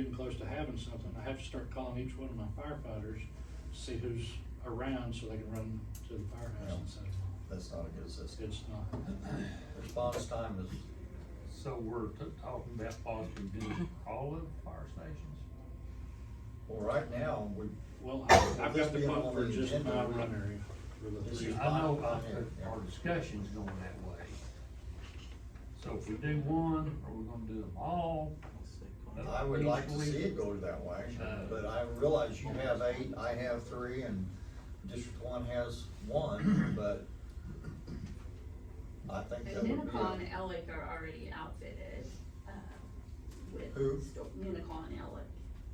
getting close to having something, I have to start calling each one of my firefighters, see who's around so they can run to the firehouse and stuff. That's not a good system. It's not, Response time is, So we're t- talking about possibly doing all of the fire stations? well, right now, we, well, I- I've This got the being pump on for the just agenda. my run area. for the This three. is- I know Fine, fine, our- yeah. our discussion's going that way. So if we do one, are we gonna do them all? I would like to see it go to that way, Uh, but I realize you have eight, I have three, and District One has one, but I think that Because would be. Unicon and a- Ellick are already outfitted, uh, with. Who? sto- Unicon and Ellick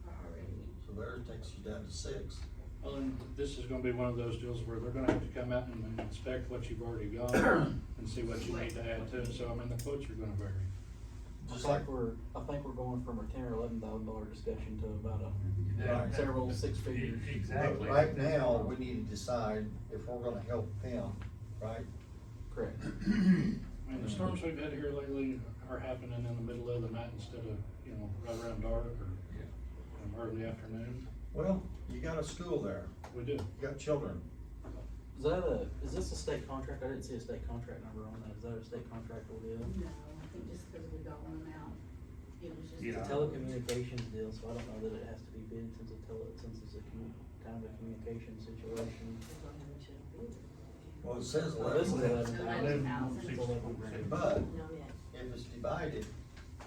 are already. So there it takes you down to six. Well, and this is gonna be one of those deals where they're gonna have to come out and inspect what you've already got and see what you need to add to it, so I mean, the quotes are gonna vary. Just like we're, I think we're going from a ten or eleven thousand dollar discussion to about a, That- Several six e- figures. But Exactly. right now, we need to decide if we're gonna help them, right? correct. I Mm. mean, the storms we've had here lately are happening in the middle of the night instead of, you know, right around dark or Yeah. um, early afternoon. Well, you got a school there, We do. you got children. Is that a, is this a state contract? I didn't see a state contract number on that. Is that a state contract or deal? No, I think just because we got one out, it was just. Yeah. It's a telecommunications deal, so I don't know that it has to be bid since a tele, since it's a commu- kind of a communication situation. Well, it says Now, This is eleven, eleven thousand. Eleven thousand. It's eleven grand. but No, yeah, if it's divided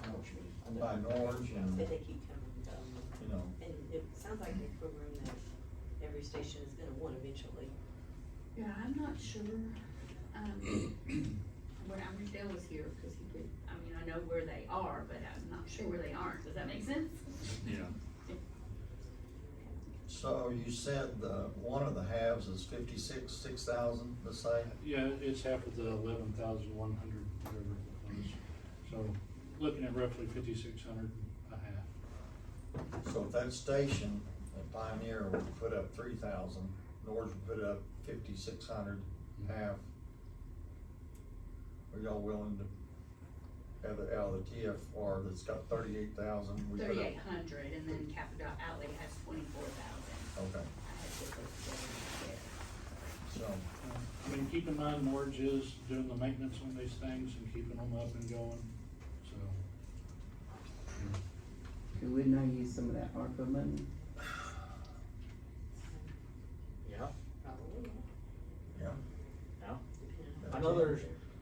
I know. by Norwich and, but you they keep coming and going. know, And it sounds like a program that every station is gonna want eventually. Yeah, I'm not sure, um, when Amrisdale was here, because he could, I mean, I know where they are, but I'm not sure where they aren't, does that make sense? Yeah. So you said the, one of the halves is fifty-six, six thousand, let's say? Yeah, it's half of the eleven thousand one hundred, whatever it was. So looking at roughly fifty-six hundred a half. So if that station, at Pioneer would put up three thousand, Norge would put up fifty-six hundred, half. Are y'all willing to have it out of the TFR that's got thirty-eight thousand? Thirty-eight hundred, and then Capadot Alley has twenty-four thousand. Okay, I had to put together there. so, Uh, I mean, keep in mind, Norge is doing the maintenance on these things and keeping them up and going, so. Could we not use some of that ARPA money? Yeah, Probably, yeah. yeah. depending I know there's,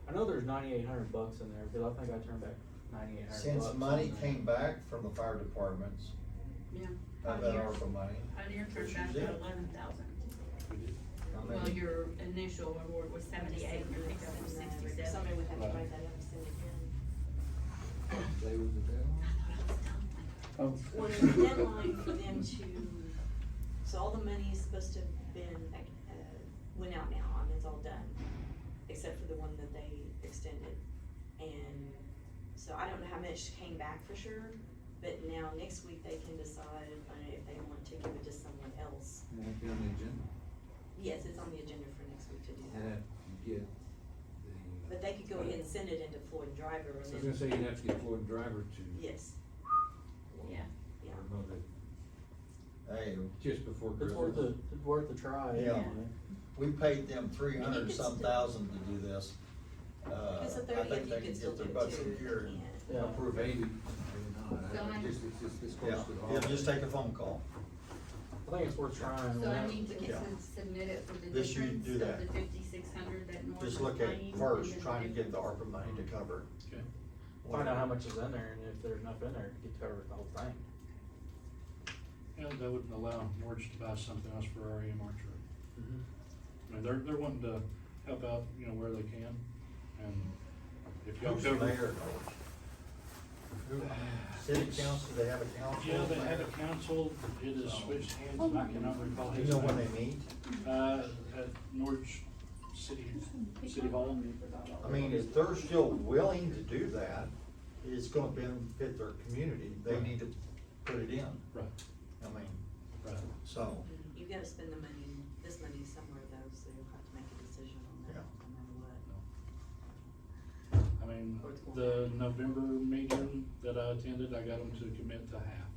I know there's ninety-eight hundred bucks in there, because I think I turned back ninety-eight hundred bucks. Since money on that. came back from the fire departments, Yeah. of that ARPA money, Pioneer turned back to eleven thousand. I mean, Well, your initial award was seventy-eight, your pickup was on. sixty-seven. Somebody would have to Right. write that up and send it Oh. in. Well, there's a deadline for them to, so all the money's supposed to have been, like, uh, went out now, I mean, it's all done, except for the one that they extended. And so I don't know how much came back for sure, but now next week they can decide uh, if they want to give it to someone else. And that'd be on the agenda, Yes, it's on the agenda for next week to do and that, that you get the. but they could go ahead and send it into Floyd Driver I was and then, gonna say, you'd have to get Floyd Driver to. yes, Yeah. I don't know that, Hey, just before It's Christmas. worth the, it's worth the try. Yeah. we paid them three hundred still- some thousand to do this. Uh, because the I thirtieth think you they could can still get do their it butts too, in if you gear. can. Yeah. Approve eighty, maybe not, I- Don't I- just, it's, it's this Yeah, close to the yeah, holiday. just take a phone call. I think it's worth trying. So I without- need to get Yeah. some submitted for the This you difference do of that. the fifty-six hundred that North. Just look at first, trying to get the ARPA money to cover. Okay. Find out how much is in there, and if there's enough in there to get covered the whole thing. And that wouldn't allow Norge to buy something else for our EMR truck. I mean, they're, they're wanting to help out, you know, where they can, and if y'all Who's the cover. mayor? Who- City council, they have a council? Yeah, they had a mayor? council, it is switched hands, and I cannot recall Do you his know when name. they meet? Uh, at Norge City, City Hall. I mean, if they're still willing to do that, it's gonna benefit their community, they need to put it in. Right, I mean, right. so, You've gotta spend the money, this money somewhere though, so you'll have to make a decision on that, Yeah. no matter what. I mean, the November meeting that I attended, I got them to commit to half.